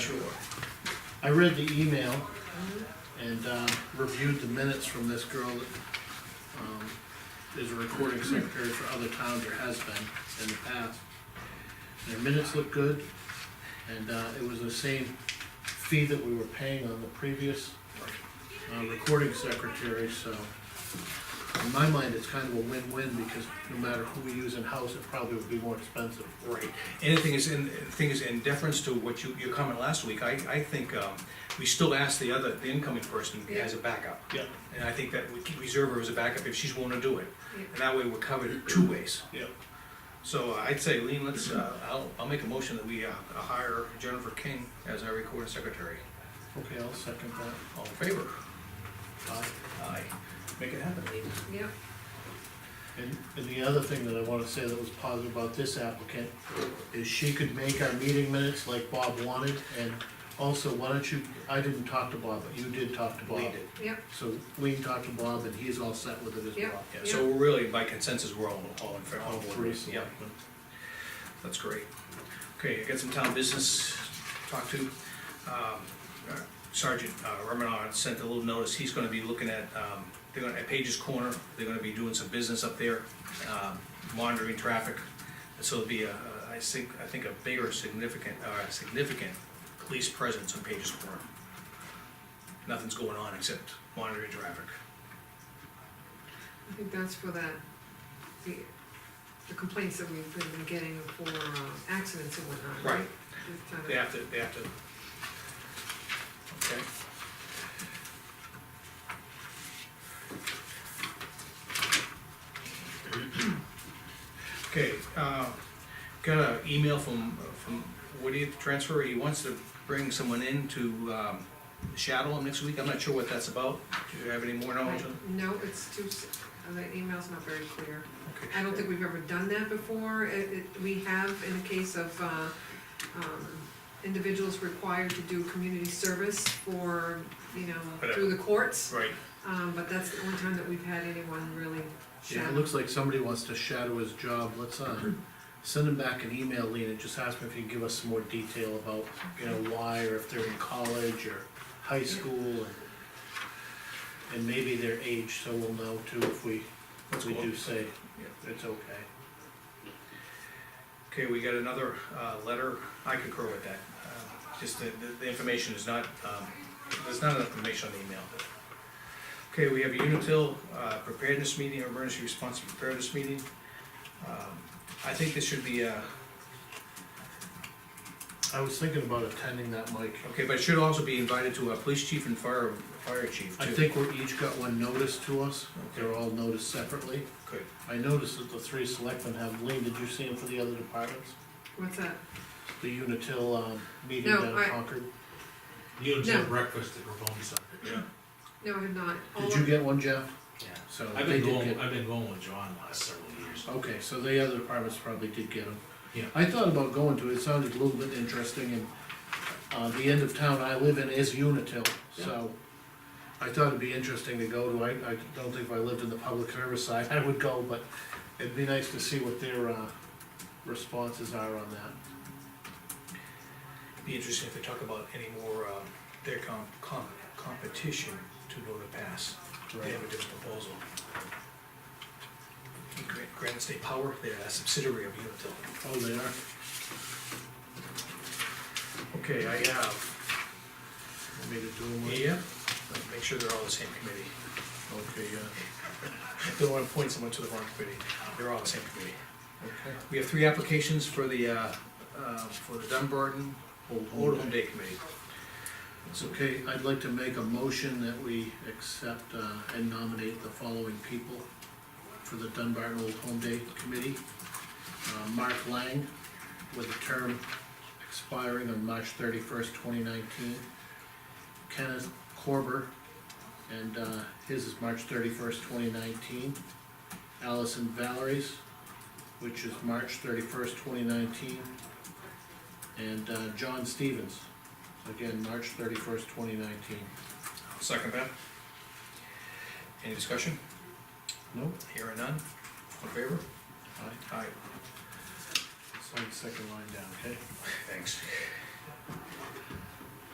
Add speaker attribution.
Speaker 1: I read the email and, uh, reviewed the minutes from this girl that, um, is a recording secretary for other towns or has been in the past. Their minutes look good, and, uh, it was the same fee that we were paying on the previous, uh, recording secretary, so. In my mind, it's kind of a win-win, because no matter who we use in-house, it probably would be more expensive.
Speaker 2: Right, and the thing is, in, the thing is, in deference to what you, your comment last week, I, I think, um, we still ask the other, the incoming person as a backup.
Speaker 1: Yeah.
Speaker 2: And I think that we keep- reserve her as a backup if she's willing to do it,
Speaker 3: Yeah.
Speaker 2: and that way we're covered two ways.
Speaker 1: Yeah.
Speaker 2: So I'd say, Lean, let's, uh, I'll, I'll make a motion that we, uh, hire Jennifer King as our recording secretary.
Speaker 1: Okay, I'll second that.
Speaker 2: All in favor?
Speaker 1: Aye.
Speaker 2: Aye. Make it happen.
Speaker 3: Yep,
Speaker 1: And, and the other thing that I wanna say that was positive about this applicant is she could make our meeting minutes like Bob wanted, and also, why don't you, I didn't talk to Bob, but you did talk to Bob.
Speaker 2: Lean did.
Speaker 3: yep,
Speaker 1: So Lean talked to Bob, and he's all set with it as
Speaker 3: Yep.
Speaker 1: well.
Speaker 2: Yeah, so we're really, by consensus, we're all, all in favor.
Speaker 1: All three selectmen.
Speaker 2: That's great. Okay, I got some town business to talk to. Um, uh, Sergeant uh, Remenard sent a little notice, he's gonna be looking at, um, they're gonna, at Page's Corner, they're gonna be doing some business up there, um, monitoring traffic. And So it'll be a, I think, I think a bigger significant, uh, significant police presence on Page's Corner. Nothing's going on except monitoring traffic.
Speaker 3: I think that's for that, the, the complaints that we've been getting for uh, accidents and whatnot, right?
Speaker 2: Right.
Speaker 3: We've done it.
Speaker 2: They have to, they have to. Okay. Okay, uh, got an email from, from Woody at the transfer, he wants to bring someone in to, um, shadow him next week, I'm not sure what that's about, do you have any more knowledge on?
Speaker 3: No, it's too, s- uh, the email's not very clear.
Speaker 2: it?
Speaker 3: I don't think we've ever done that before. It, it, we have in the case of, uh, um, individuals required to do community service for, you know, through the courts.
Speaker 2: Right,
Speaker 3: Um, but that's the only time that we've had anyone really
Speaker 1: Yeah, it
Speaker 3: shadow.
Speaker 1: looks like somebody wants to shadow his job, let's, uh, send him back an email, Lean, and just ask him if he can give us some more detail about, you know, why, or if they're in college or high school, and, and maybe their age, so we'll know too if we, if
Speaker 2: That's
Speaker 1: we
Speaker 2: cool.
Speaker 1: do say
Speaker 2: Yeah.
Speaker 1: it's okay.
Speaker 2: okay, we got another, uh, letter, I concur with that, uh, just the, the- the information is not, um, there's not enough information on the email. Okay, we have a Unitil uh, preparedness meeting, emergency response preparedness meeting. Um, I think this should be, uh,
Speaker 1: I was thinking about attending that, Mike.
Speaker 2: okay, but it should also be invited to a police chief and fire, fire chief too.
Speaker 1: I think we're each got one notice to us, they're
Speaker 2: Okay.
Speaker 1: all noticed separately.
Speaker 2: Good,
Speaker 1: I noticed that the three selectmen have, Lean, did you see them for the other departments?
Speaker 3: What's that?
Speaker 1: The Unitil, um, meeting
Speaker 3: No,
Speaker 1: down in
Speaker 3: I-
Speaker 1: Concord?
Speaker 4: You don't
Speaker 3: No.
Speaker 4: have breakfast at Ramone's.
Speaker 2: yeah,
Speaker 3: No, I have not. All
Speaker 1: Did
Speaker 3: of-
Speaker 1: you get one, Jeff?
Speaker 4: Yeah.
Speaker 1: So
Speaker 4: I've
Speaker 1: they
Speaker 4: been
Speaker 1: did
Speaker 4: going,
Speaker 1: get,
Speaker 4: I've been going with John last several years.
Speaker 1: okay, so the other departments probably did get them.
Speaker 4: Yeah.
Speaker 1: I thought about going to it, it sounded a little bit interesting, and, uh, the end of town I live in is Unitil, so. I thought it'd be interesting to go to, I, I don't think if I lived in the public service side, I would go, but it'd be nice to see what their, uh, responses are on that.
Speaker 2: be interesting if they talk about any more, um, their com, com, competition to go to pass. They have a different proposal. Gran- Granite State Power, they're a subsidiary of Unitil.
Speaker 1: Oh, they are?
Speaker 2: Okay, I have,
Speaker 1: Want me to do them? with-
Speaker 2: yeah, make sure they're all the same committee.
Speaker 1: Okay, yeah,
Speaker 2: Don't wanna point someone to the wrong committee, they're all the same committee.
Speaker 1: okay.
Speaker 2: We have three applications for the, uh, uh, for the Dunbarton Old Old Home Day Committee.
Speaker 1: It's okay, I'd like to make a motion that we accept uh, and nominate the following people for the Dunbar Old Home Day Committee. Uh, Mark Lang, with a term expiring on March thirty-first, twenty nineteen. Kenneth Corber, and uh, his is March thirty-first, twenty nineteen. Allison Valeries, which is March thirty-first, twenty nineteen. And uh, John Stevens, Again, March thirty-first, twenty nineteen.
Speaker 2: Second that. Any discussion?
Speaker 1: No?
Speaker 2: Here or none? All in favor?
Speaker 1: Aye.
Speaker 2: Aye.
Speaker 1: Sign the second line down, okay?
Speaker 2: Thanks.